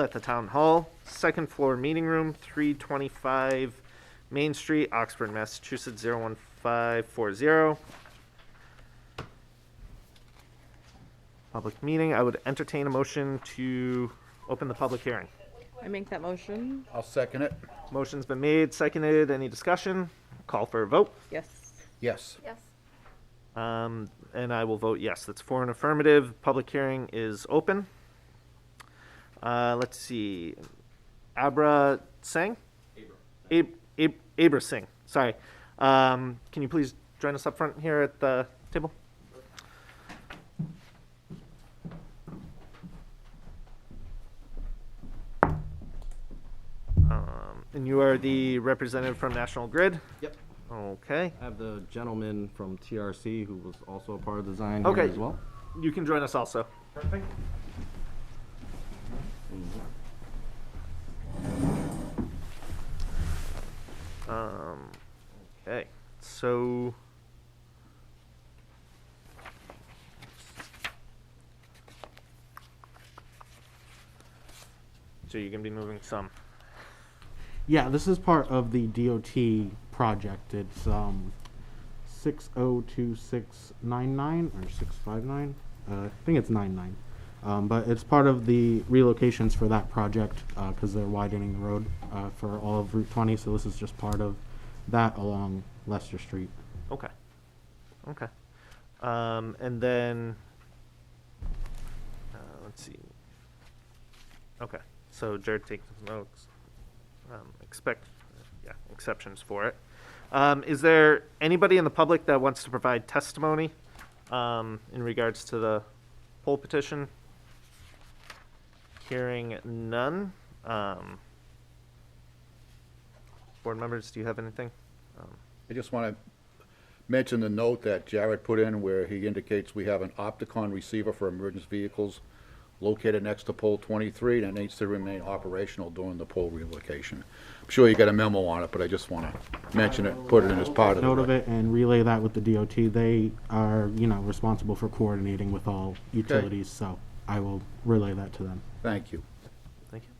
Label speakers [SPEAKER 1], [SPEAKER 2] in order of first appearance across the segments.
[SPEAKER 1] at the Town Hall, second floor meeting room, 325 Main Street, Oxford, Massachusetts, 01540. Public meeting, I would entertain a motion to open the public hearing.
[SPEAKER 2] I make that motion?
[SPEAKER 3] I'll second it.
[SPEAKER 1] Motion's been made, seconded, any discussion? Call for a vote,
[SPEAKER 2] Yes.
[SPEAKER 3] Yes.
[SPEAKER 4] Yes.
[SPEAKER 1] um, and I will vote yes. That's for an affirmative, public hearing is open. Uh, let's see, Abra Singh? Ab- Ab- Abra Singh, sorry. Um, can you please join us up front here at the table? Um, and you are the representative from National Grid?
[SPEAKER 5] Yep.
[SPEAKER 1] Okay,
[SPEAKER 5] I have the gentleman from TRC who was also a part of design
[SPEAKER 1] Okay.
[SPEAKER 5] here as well.
[SPEAKER 1] you can join us also. Um, okay, so. So you're gonna be moving some.
[SPEAKER 6] Yeah, this is part of the DOT project. It's um, six zero two six nine nine or six five nine. Uh, I think it's nine nine, um, but it's part of the relocations for that project because they're widening the road uh, for all of Route twenty. So this is just part of that along Leicester Street.
[SPEAKER 1] Okay. Okay. Um, and then, uh, let's see. Okay, so Jared takes notes. Um, expect, yeah, exceptions for it. Um, is there anybody in the public that wants to provide testimony, um, in regards to the poll petition? Hearing none, um, board members, do you have anything? Um,
[SPEAKER 3] I just want to mention the note that Jared put in where he indicates we have an Opticon receiver for emergency vehicles located next to pole 23, and it needs to remain operational during the pole relocation. I'm sure you got a memo on it, but I just want to mention it, put it in as part of
[SPEAKER 6] Note of
[SPEAKER 3] it.
[SPEAKER 6] it and relay that with the DOT. They are you know responsible for coordinating with all utilities. So I will relay that to them.
[SPEAKER 3] Thank you.
[SPEAKER 1] Thank you.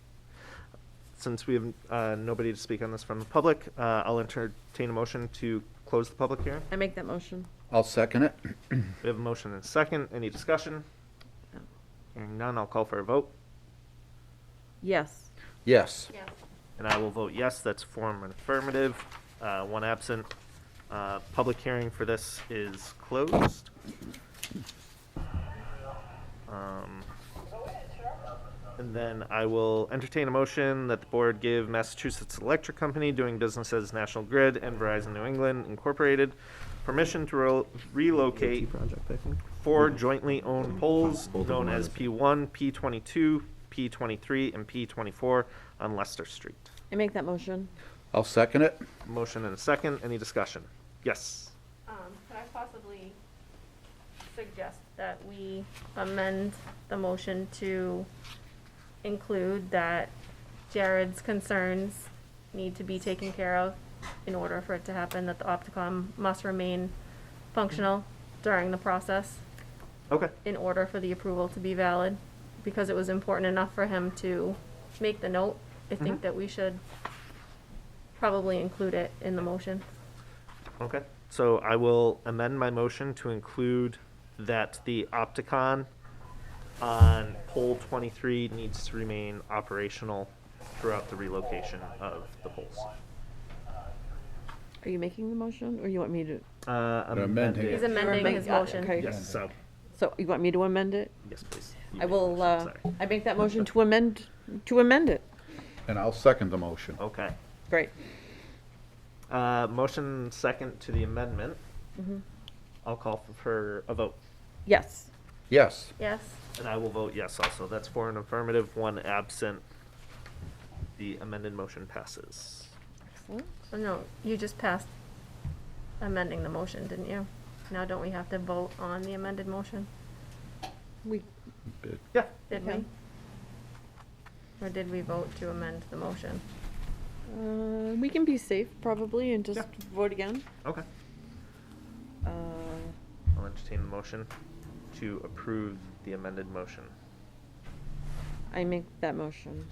[SPEAKER 1] Since we have uh, nobody to speak on this from the public, uh, I'll entertain a motion to close the public hearing.
[SPEAKER 2] I make that motion?
[SPEAKER 3] I'll second it.
[SPEAKER 1] We have a motion and a second. Any discussion? Hearing none, I'll call for a vote,
[SPEAKER 2] Yes.
[SPEAKER 3] Yes.
[SPEAKER 4] Yes.
[SPEAKER 1] and I will vote yes. That's form affirmative, uh, one absent. Uh, Public hearing for this is closed. Um, And then I will entertain a motion that the board give Massachusetts Electric Company, doing business as National Grid and Verizon New England Incorporated, permission to rel- relocate
[SPEAKER 5] Project, I think.
[SPEAKER 1] four jointly owned poles
[SPEAKER 5] Both of
[SPEAKER 1] known
[SPEAKER 5] them are
[SPEAKER 1] as
[SPEAKER 5] the
[SPEAKER 1] P1, P22, P23, and P24 on Leicester Street.
[SPEAKER 2] I make that motion?
[SPEAKER 3] I'll second it.
[SPEAKER 1] Motion and a second. Any discussion? Yes.
[SPEAKER 4] Um, could I possibly suggest that we amend the motion to include that Jared's concerns need to be taken care of in order for it to happen, that the Opticom must remain functional during the process
[SPEAKER 1] Okay.
[SPEAKER 4] in order for the approval to be valid, because it was important enough for him to make the note. I think that we should probably include it in the motion.
[SPEAKER 1] Okay. So I will amend my motion to include that the Opticon on pole 23 needs to remain operational throughout the relocation of the poles.
[SPEAKER 2] Are you making the motion, or you want me to?
[SPEAKER 1] Uh,
[SPEAKER 3] amending
[SPEAKER 4] He's
[SPEAKER 3] it.
[SPEAKER 4] amending his
[SPEAKER 2] Amend- uh,
[SPEAKER 4] motion.
[SPEAKER 2] okay.
[SPEAKER 1] Yes, so,
[SPEAKER 2] So you want me to amend it?
[SPEAKER 1] yes, please. You
[SPEAKER 2] I
[SPEAKER 1] made the
[SPEAKER 2] will,
[SPEAKER 1] motion,
[SPEAKER 2] uh,
[SPEAKER 1] sorry.
[SPEAKER 2] I make that motion to amend, to amend it.
[SPEAKER 3] And I'll second the motion.
[SPEAKER 1] Okay.
[SPEAKER 2] Great.
[SPEAKER 1] Uh, motion second to the amendment.
[SPEAKER 2] Mm-hmm.
[SPEAKER 1] I'll call for- for a vote,
[SPEAKER 2] Yes.
[SPEAKER 3] Yes.
[SPEAKER 4] Yes,
[SPEAKER 1] and I will vote yes also. That's for an affirmative, one absent. The amended motion passes.
[SPEAKER 2] Excellent.
[SPEAKER 4] Oh, no, you just passed amending the motion, didn't you? Now don't we have to vote on the amended motion,
[SPEAKER 2] We,
[SPEAKER 1] Yeah,
[SPEAKER 4] did
[SPEAKER 2] Okay.
[SPEAKER 4] we? Or did we vote to amend the motion?
[SPEAKER 2] uh, we can be safe probably and just
[SPEAKER 1] Yeah.
[SPEAKER 2] vote again.
[SPEAKER 1] okay.
[SPEAKER 2] Uh,
[SPEAKER 1] I'll entertain the motion to approve the amended motion.
[SPEAKER 2] I I make that motion.